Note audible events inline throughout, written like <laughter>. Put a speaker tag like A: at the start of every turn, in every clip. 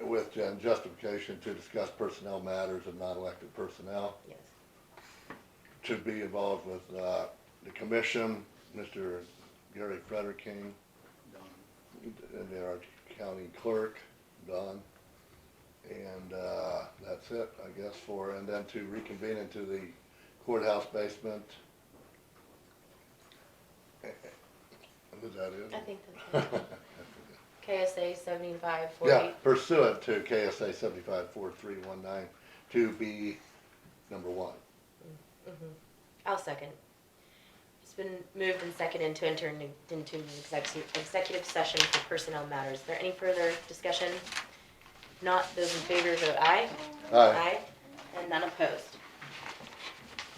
A: with Jen, justification to discuss personnel matters of non-elected personnel,
B: yes.
A: to be involved with, uh, the commission, Mr. Gary Frederick King, and then our county clerk, Don. And, uh, that's it, I guess, for, and then to reconvene into the courthouse basement. Is that it?
B: I think that's
A: <laughs>
B: it. KSA seventy-five
A: Yeah,
B: forty,
A: pursuant to KSA seventy-five four three one nine to be number one.
B: Mm-hmm. I'll second. It's been moved and seconded to enter into- into an execu- executive session for personnel matters. Is there any further discussion? Not, those in favor vote aye.
A: Aye.
B: And none opposed.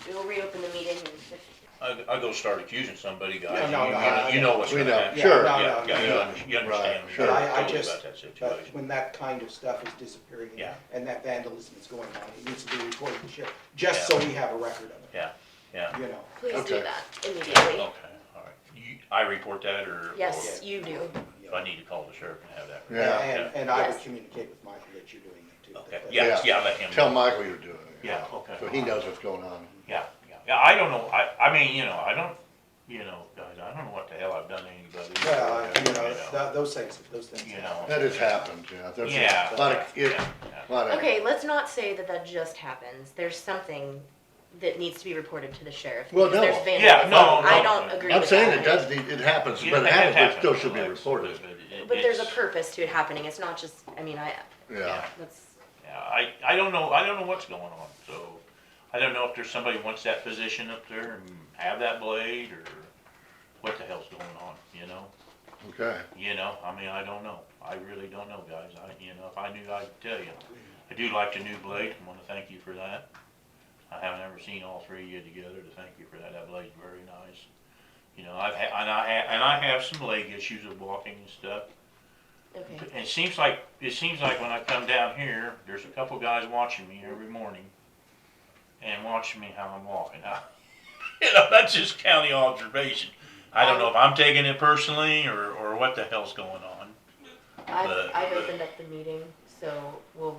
B: We will reopen the meeting in fif-
C: I, I go start accusing somebody, guys, you,
D: No, no, no,
C: you- you
D: no.
C: know what's
A: We
C: gonna
A: know.
C: happen.
D: Yeah,
A: Sure.
D: no,
C: Yeah,
D: no,
C: yeah,
D: no.
C: you
A: yeah.
C: under- you understand,
A: Right,
C: me.
A: sure.
D: But I, I
C: Tell me about that
D: just, but
C: situation.
D: uh, when that kind of stuff is disappearing
C: Yeah.
D: and that vandalism is going on, it needs to be reported to sheriff, just so we have a record of
C: Yeah, yeah,
D: it, you know.
B: Please do
A: Okay.
B: that
C: okay,
B: immediately.
C: all right. You, I report that, or? or
B: Yes, you do.
C: If I need to call the sheriff and have that.
A: Yeah.
D: And, and I would
B: Yes.
D: communicate with Michael that you're doing it too.
C: Okay,
D: that-
C: yeah,
A: Yeah.
C: yeah, let him.
A: Tell
C: know.
A: Michael you're doing it.
C: Yeah, okay.
A: So he knows what's going on.
C: Yeah, yeah, yeah, I don't know, I, I mean, you know, I don't, you know, guys, I don't know what the hell I've done to anybody.
D: Well, you know,
C: you know.
D: th- those things, those things
C: You
D: happen.
A: That has happened, yeah. That's a
C: Yeah.
A: Lot of, it,
C: Yeah, yeah.
A: lot of.
B: Okay, let's not say that that just happens. There's something that needs to be reported to the sheriff.
A: Well,
B: because
A: no.
B: there's
C: Yeah,
B: vandalism.
C: no, no,
B: I don't
C: no.
B: agree
A: I'm
B: with
A: saying
B: that.
A: it does, need- it happens,
C: You
A: but
C: know,
A: it happens, but it
C: happened.
A: still should be
C: Well,
A: reported.
C: but it-
B: But there's a
C: it's-
B: purpose to it happening. It's not just, I mean, I,
A: Yeah.
B: that's,
C: Yeah, I, I don't know, I don't know what's going on, so, I don't know if there's somebody wants that position up there and have that blade, or what the hell's going on, you know?
A: Okay.
C: You know, I mean, I don't know, I really don't know, guys, I, you know, if I knew, I'd tell you. I do like the new blade, I wanna thank you for that. I haven't ever seen all three of you together, to thank you for that, that blade's very nice. You know, I've had, and I, ha- and I have some leg issues of walking and stuff,
B: okay.
C: and It seems like, it seems like when I come down here, there's a couple guys watching me every morning and watching me how I'm walking. <laughs> I, you know, that's just county observation. I don't know if I'm taking it personally or, or what the hell's going on.
B: I've,
C: But-
B: I've opened up the meeting, so we'll,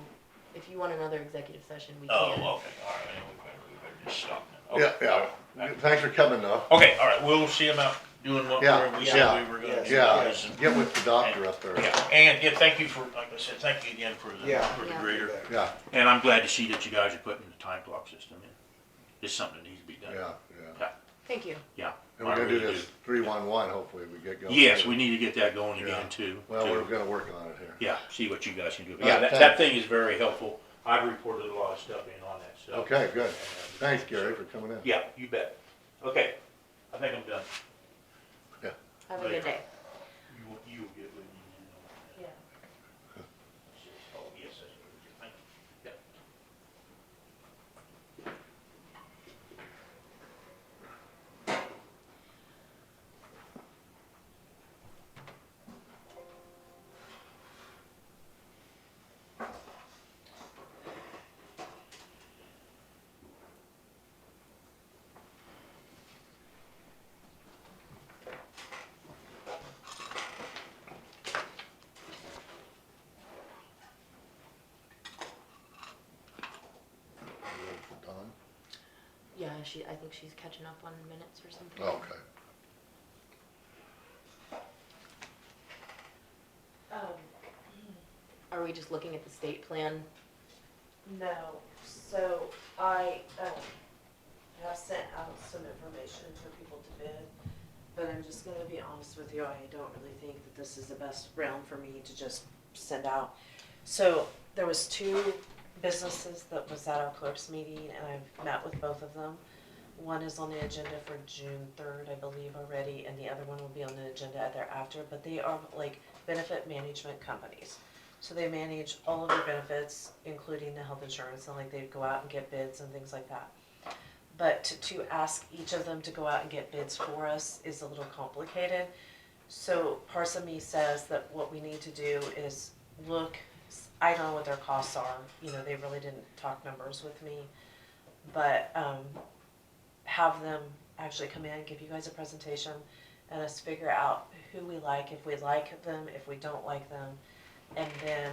B: if you want another executive session, we
C: Oh, okay,
B: can.
C: all right, we better, we better just stop now.
A: Yeah,
C: Okay,
A: yeah.
C: all right.
A: Thanks for coming though.
C: Okay, all right, we'll see about doing what
A: Yeah,
C: we're- we
A: yeah,
C: said we were gonna do.
A: Yeah,
C: guys, and-
A: get with the doctor up there.
C: Yeah, and, yeah, thank you for, like I said, thank you again for the,
D: Yeah.
C: for the
B: Yeah.
C: grader.
A: Yeah,
C: And I'm glad to see that you guys are putting the time clock system in. It's something that needs to be
A: yeah,
C: done.
A: yeah.
B: Thank you.
C: Yeah.
A: And
C: I
A: we're gonna do
C: really
A: this three-one-one, hopefully we get going.
C: Yes, we need to get that going
A: Yeah.
C: again too.
A: Well,
C: too.
A: we're gonna work on it here.
C: Yeah, see what you guys can do. But
A: All
C: Yeah,
A: right,
C: that,
A: thanks.
C: that thing is very helpful. I've reported a lot of stuff in on that stuff.
A: Okay, good. Thanks, Gary, for coming in.
C: Yeah, you bet. Okay, I think I'm done.
B: Have a good day.
C: You, will- you will get with me. uh,
B: Yeah.
C: Oh, yes, that's what it is. Yeah.
A: Don?
B: Yeah, she, I think she's catching up on minutes or something.
A: Oh, Okay.
E: Um,
B: Are we just looking at the state plan?
E: no, so I, um, have sent out some information for people to bid, but I'm just gonna be honest with you, I don't really think that this is the best round for me to just send out. So, there was two businesses that was at our clerk's meeting, and I've met with both of them. One is on the agenda for June third, I believe already, and the other one will be on the agenda thereafter, but they are like benefit management companies. So they manage all of your benefits, including the health insurance, and like they go out and get bids and things like that. But to, to ask each of them to go out and get bids for us is a little complicated. So parts of me says that what we need to do is look, I don't know what their costs are, you know, they really didn't talk numbers with me. But, um, have them actually come in, give you guys a presentation, and us figure out who we like, if we like them, if we don't like them, and then